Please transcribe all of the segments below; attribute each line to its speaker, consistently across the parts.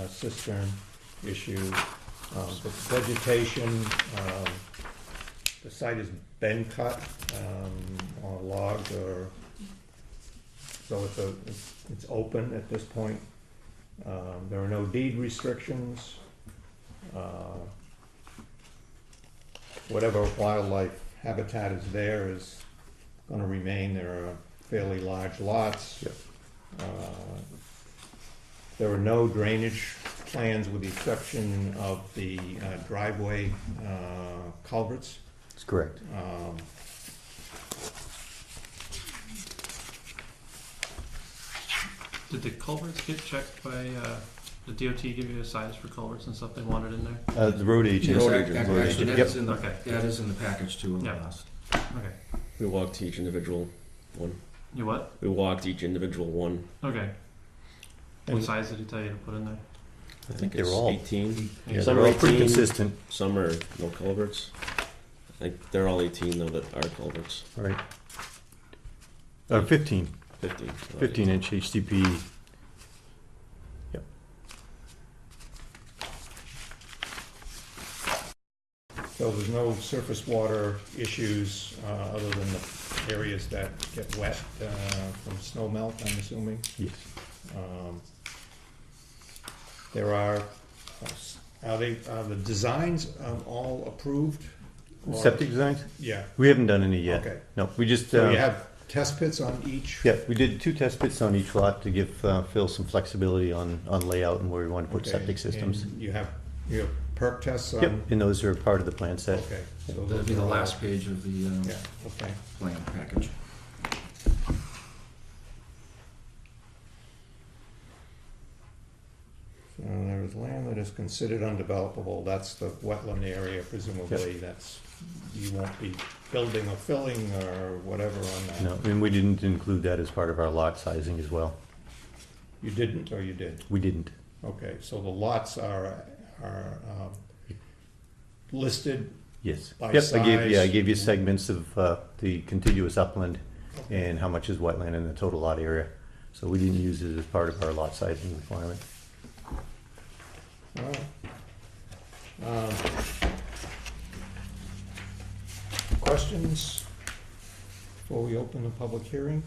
Speaker 1: uh, cistern issue, um, the vegetation, um, the site has been cut, um, or logged or, so it's a, it's- it's open at this point. Um, there are no deed restrictions. Uh, Whatever wildlife habitat is there is gonna remain, there are fairly large lots.
Speaker 2: Yep.
Speaker 1: Uh, There are no drainage plans with the exception of the uh, driveway uh, culverts.
Speaker 2: That's correct.
Speaker 1: Um,
Speaker 3: Did the culverts get checked by, uh, the DOT give you a size for culverts and stuff they wanted in there?
Speaker 2: Uh, the road agent.
Speaker 4: Yes, ac- ac- Actually, that
Speaker 2: Yep.
Speaker 4: is in the,
Speaker 3: Okay.
Speaker 4: that is in the package too, in the
Speaker 3: Yeah.
Speaker 4: last.
Speaker 3: Okay.
Speaker 5: We walked each individual one.
Speaker 3: You what?
Speaker 5: We walked each individual one.
Speaker 3: Okay. What
Speaker 1: And-
Speaker 3: size did he tell you to put in there?
Speaker 2: I think they're
Speaker 5: it's
Speaker 2: all,
Speaker 5: 18.
Speaker 2: yeah,
Speaker 5: Some
Speaker 2: they're
Speaker 5: are
Speaker 2: all pretty
Speaker 5: 18,
Speaker 2: consistent,
Speaker 5: Some are no culverts. I think they're all 18 though that are culverts.
Speaker 2: right? Uh, fifteen,
Speaker 5: 15. so
Speaker 2: fifteen inch HDP. Yep.
Speaker 1: So there's no surface water issues, uh, other than the areas that get wet, uh, from snow melt, I'm assuming.
Speaker 2: Yes.
Speaker 1: Um, There are, uh, are they, are the designs um, all approved? Or-
Speaker 2: Septic designs?
Speaker 1: Yeah,
Speaker 2: We haven't done any yet.
Speaker 1: okay.
Speaker 2: No, we just,
Speaker 1: So you
Speaker 2: uh,
Speaker 1: have test pits on each?
Speaker 2: yeah, we did two test pits on each lot to give uh, Phil some flexibility on, on layout and where we want to put
Speaker 1: Okay,
Speaker 2: septic systems.
Speaker 1: and um, You have, you have perk tests on?
Speaker 2: Yep, and those are part of the plan set.
Speaker 1: Okay. so
Speaker 4: That'd be
Speaker 1: those
Speaker 4: the
Speaker 1: are all-
Speaker 4: last page of the, um,
Speaker 1: Yeah, okay.
Speaker 4: plan package.
Speaker 1: So there is land that is considered undevelopable, that's the wetland area presumably, that's, you won't be building or filling or whatever on that.
Speaker 2: No, and we didn't include that as part of our lot sizing as well.
Speaker 1: You didn't, or you did?
Speaker 2: We didn't.
Speaker 1: Okay, so the lots are, are, um, listed,
Speaker 2: Yes.
Speaker 1: By
Speaker 2: Yep, I gave, yeah, I
Speaker 1: size.
Speaker 2: gave you segments of uh, the contiguous upland and how much is wetland in the total lot area. So we didn't use it as part of our lot sizing requirement.
Speaker 1: Alright. Um, Questions before we open the public hearing?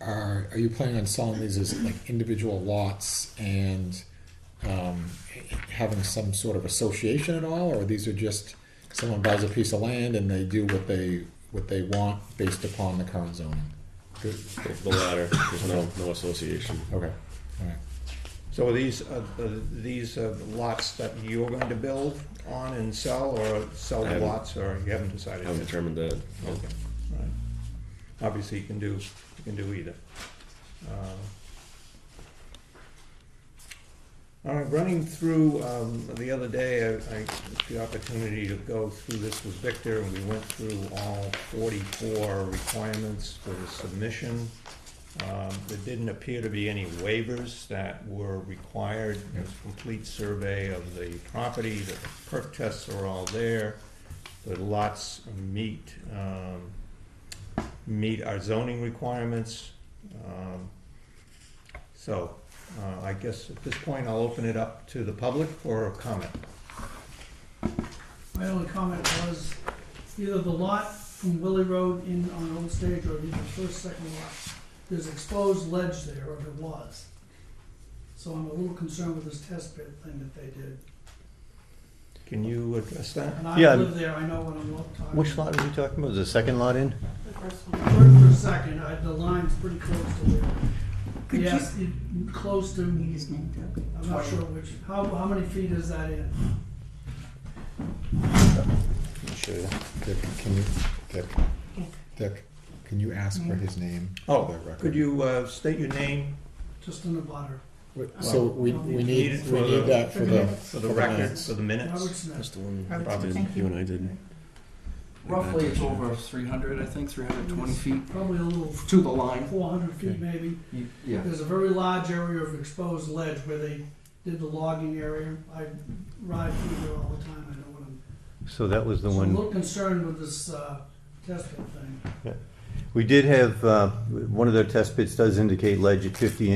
Speaker 6: Are, are you planning on selling these as like individual lots and um, having some sort of association at all, or these are just someone buys a piece of land and they do what they what they want based upon the current zoning?
Speaker 5: The the latter. There's no, no association.
Speaker 6: Okay, all right.
Speaker 1: So are these, uh, uh, these uh, lots that you're going to build on and sell, or sell
Speaker 5: I
Speaker 1: the
Speaker 5: haven't-
Speaker 1: lots, or you haven't
Speaker 5: I
Speaker 1: decided?
Speaker 5: haven't
Speaker 1: yet?
Speaker 5: determined that.
Speaker 1: Okay, right. Obviously, you can do, you can do either. Uh, All right, running through, um, the other day, I, I, took the opportunity to go through this with Victor, and we went through all forty-four requirements for the submission. Um, there didn't appear to be any waivers that were required, there's a complete survey of the property, the perk tests are all there. The lots meet, um, meet our zoning requirements. Um, So, uh, I guess at this point, I'll open it up to the public for a comment.
Speaker 7: My only comment was either the lot from Willie Road in on Old Stage or the first, second lot, there's exposed ledge there, or there was. So I'm a little concerned with this test pit thing that they did.
Speaker 1: Can you address that?
Speaker 7: And
Speaker 2: Yeah.
Speaker 7: I live there, I know what I'm talking about.
Speaker 2: Which lot are we talking about? The second lot in?
Speaker 7: First or second, I, the line's pretty close to there. Yes, it, close to, I'm not sure which, how, how many feet is that in?
Speaker 6: Dick, can you, Dick, Dick, can you ask for his name? for
Speaker 1: Oh,
Speaker 6: the record?
Speaker 1: could you uh, state your name
Speaker 7: Just in the butter.
Speaker 6: Wait, So we, we
Speaker 1: Need it
Speaker 6: need,
Speaker 1: for
Speaker 6: we
Speaker 1: the-
Speaker 6: need that for the.
Speaker 1: for the record,
Speaker 6: minutes.
Speaker 1: for the
Speaker 7: Robert
Speaker 1: minutes?
Speaker 7: Smith.
Speaker 5: the one
Speaker 1: Probably.
Speaker 5: you and I did.
Speaker 4: Roughly, it's over three hundred, I think, three hundred twenty feet
Speaker 7: Probably a little
Speaker 4: to the line.
Speaker 7: four hundred feet
Speaker 6: Okay.
Speaker 7: maybe.
Speaker 4: Yeah.
Speaker 7: There's a very large area of exposed ledge where they did the logging area. I ride through there all the time, I know what I'm,
Speaker 2: So that was the
Speaker 7: so I'm a
Speaker 2: one.
Speaker 7: little concerned with this, uh, testing thing.
Speaker 2: We did have, uh, one of their test pits does indicate ledge at fifty